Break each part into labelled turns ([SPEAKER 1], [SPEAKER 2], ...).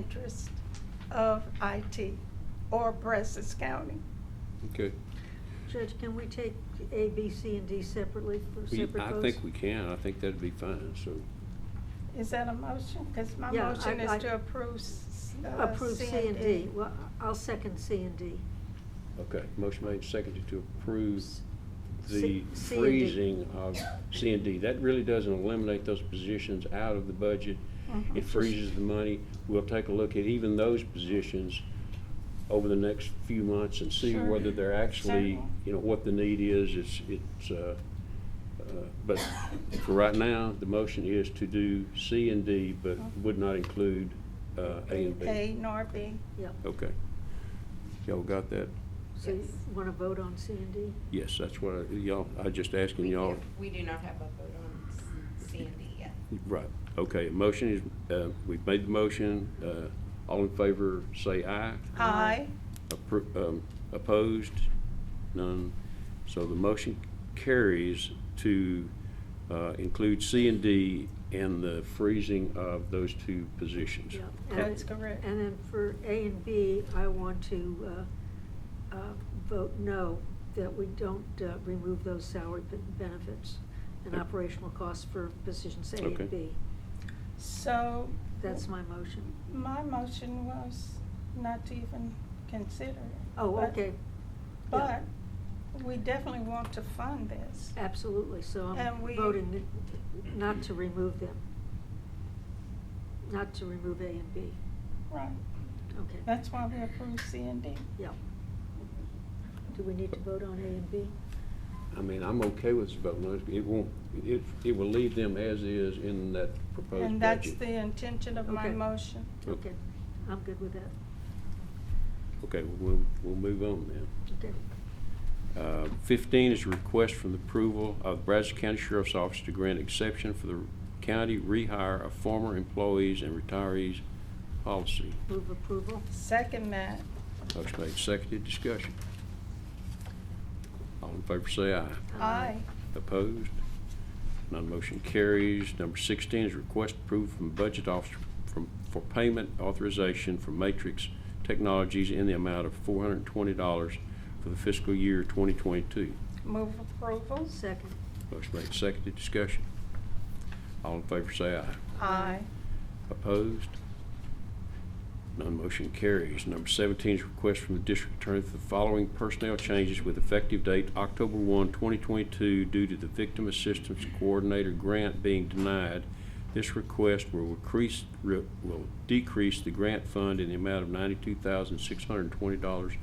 [SPEAKER 1] interest of IT or Brazos County.
[SPEAKER 2] Okay.
[SPEAKER 3] Judge, can we take A, B, C, and D separately for
[SPEAKER 2] We-
[SPEAKER 3] separate
[SPEAKER 2] I
[SPEAKER 3] votes?
[SPEAKER 2] think we can. I think that'd be fine, so.
[SPEAKER 1] Is that a motion? Because my
[SPEAKER 3] Yeah,
[SPEAKER 1] motion
[SPEAKER 3] I-
[SPEAKER 1] is
[SPEAKER 3] I-
[SPEAKER 1] to approve s- uh,
[SPEAKER 3] Approve C and D. Well, I'll second C and D.
[SPEAKER 2] Okay, motion made, seconded to approve the
[SPEAKER 3] C- C and D.
[SPEAKER 2] freezing of C and D. That really doesn't eliminate those positions out of the budget.
[SPEAKER 1] Mhm.
[SPEAKER 3] Mm-hmm.
[SPEAKER 2] It freezes the money. We'll take a look at even those positions over the next few months and see
[SPEAKER 1] Sure.
[SPEAKER 2] whether they're actually,
[SPEAKER 1] Certainly.
[SPEAKER 2] you know, what the need is. It's, it's, uh, uh, but for right now, the motion is to do C and D, but would not include, uh, A and B.
[SPEAKER 1] A nor B.
[SPEAKER 3] Yep.
[SPEAKER 2] Okay. Y'all got that?
[SPEAKER 3] So you
[SPEAKER 4] Yes.
[SPEAKER 3] want to vote on C and D?
[SPEAKER 2] Yes, that's what I, y'all, I just asking
[SPEAKER 4] We
[SPEAKER 2] y'all.
[SPEAKER 4] do- We do not have a vote on s- C and D yet.
[SPEAKER 2] Right, okay, motion is, uh, we've made the motion, uh, all in favor, say aye.
[SPEAKER 1] Aye.
[SPEAKER 2] Appro- um, Opposed, none. So the motion carries to, uh, include C and D and the freezing of those two positions.
[SPEAKER 3] Yep. And-
[SPEAKER 1] That's correct.
[SPEAKER 3] And then for A and B, I want to uh, uh, vote no, that we don't uh, remove those salary ben- benefits and
[SPEAKER 2] Okay.
[SPEAKER 3] operational costs for positions A
[SPEAKER 2] Okay.
[SPEAKER 3] and B.
[SPEAKER 1] So.
[SPEAKER 3] That's my motion.
[SPEAKER 1] My motion was not to even consider it.
[SPEAKER 3] Oh,
[SPEAKER 1] but-
[SPEAKER 3] okay.
[SPEAKER 1] But we definitely want to fund this.
[SPEAKER 3] Absolutely, so
[SPEAKER 1] And
[SPEAKER 3] I'm
[SPEAKER 1] we-
[SPEAKER 3] voting not to remove them. Not to remove A and B.
[SPEAKER 1] Right.
[SPEAKER 3] Okay.
[SPEAKER 1] That's why we approved C and D.
[SPEAKER 3] Yeah. Do we need to vote on A and B?
[SPEAKER 2] I mean, I'm okay with this vote, no, it won't, it, it will leave them as is in that proposed budget.
[SPEAKER 1] And that's the intention of my
[SPEAKER 3] Okay.
[SPEAKER 1] motion.
[SPEAKER 3] Okay, I'm good with that.
[SPEAKER 2] Okay, we'll, we'll move on then.
[SPEAKER 3] Okay.
[SPEAKER 2] Uh, 15 is a request from the approval of Brazos County Sheriff's Office to grant exception for the county rehire of former employees and retirees policy.
[SPEAKER 3] Move approval?
[SPEAKER 1] Second that.
[SPEAKER 2] Motion made, seconded, discussion. All in favor say aye.
[SPEAKER 1] Aye.
[SPEAKER 2] Opposed? None motion carries. Number 16 is request approved from Budget Officer from- for payment authorization from Matrix Technologies in the amount of $420 for the fiscal year 2022.
[SPEAKER 1] Move approval.
[SPEAKER 3] Second.
[SPEAKER 2] Motion made, seconded, discussion. All in favor say aye.
[SPEAKER 1] Aye.
[SPEAKER 2] Opposed? None motion carries. Number 17 is request from the district attorney for the following personnel changes with effective date October 1, 2022, due to the Victim Assistance Coordinator grant being denied. This request will increase, re- will decrease the grant fund in the amount of $92,620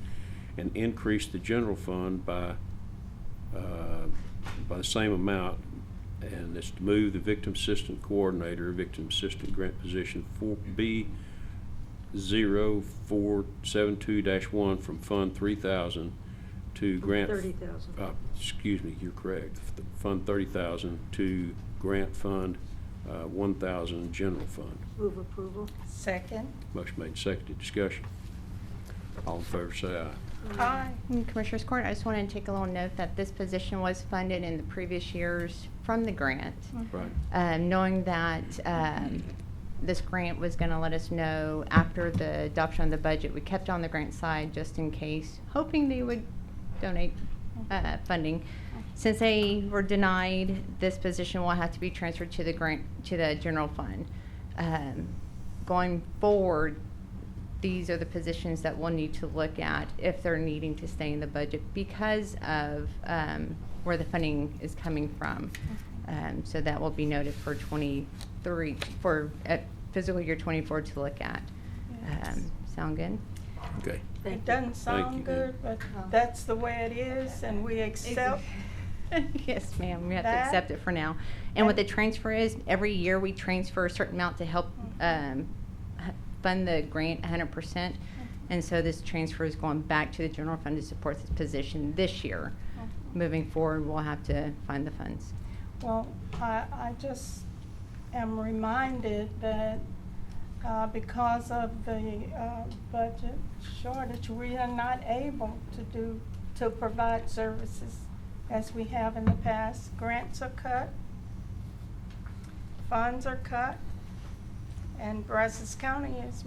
[SPEAKER 2] and increase the general fund by uh, by the same amount, and it's to move the victim assistant coordinator, victim assistant grant position four B zero four seven two dash one from Fund three thousand to
[SPEAKER 3] From
[SPEAKER 2] grant.
[SPEAKER 3] 30,000.
[SPEAKER 2] Uh, excuse me, you're correct, F- Fund thirty thousand to grant fund, uh, one thousand general fund.
[SPEAKER 3] Move approval?
[SPEAKER 1] Second.
[SPEAKER 2] Motion made, and seconded, discussion. All in favor, say aye.
[SPEAKER 1] Aye.
[SPEAKER 5] Mm, Commissioners Court, I just wanted to take a little note that this position was funded in the previous years from the grant.
[SPEAKER 1] Mm-hmm.
[SPEAKER 2] Right.
[SPEAKER 5] Um, Knowing that um, this grant was going to let us know after the adoption of the budget, we kept on the grant side just in case, hoping they would donate uh, funding. Since they were denied, this position will have to be transferred to the grant, to the general fund. Um, Going forward, these are the positions that we'll need to look at if they're needing to stay in the budget because of um, where the funding is coming from. Um, So that will be noted for '23, for uh, fiscal year '24 to look at.
[SPEAKER 1] Yes.
[SPEAKER 5] Um, Sound good?
[SPEAKER 2] Okay.
[SPEAKER 3] Thank
[SPEAKER 1] It
[SPEAKER 3] you.
[SPEAKER 1] doesn't
[SPEAKER 2] you,
[SPEAKER 1] sound good, but
[SPEAKER 5] Oh.
[SPEAKER 1] that's the way it is, and we accept.
[SPEAKER 5] Yes, ma'am, we have to
[SPEAKER 1] That-
[SPEAKER 5] accept it for now. And what the
[SPEAKER 1] that-
[SPEAKER 5] transfer is, every year we transfer a certain amount to help
[SPEAKER 1] Mhm.
[SPEAKER 5] um, h- fund the grant 100%. And so this transfer is going back to the general fund to support this position this year. Moving forward, we'll have to find the funds.
[SPEAKER 1] Well, I, I just am reminded that uh, because of the uh, budget shortage, we are not able to do, to provide services as we have in the past. Grants are cut, funds are cut, and Brazos County is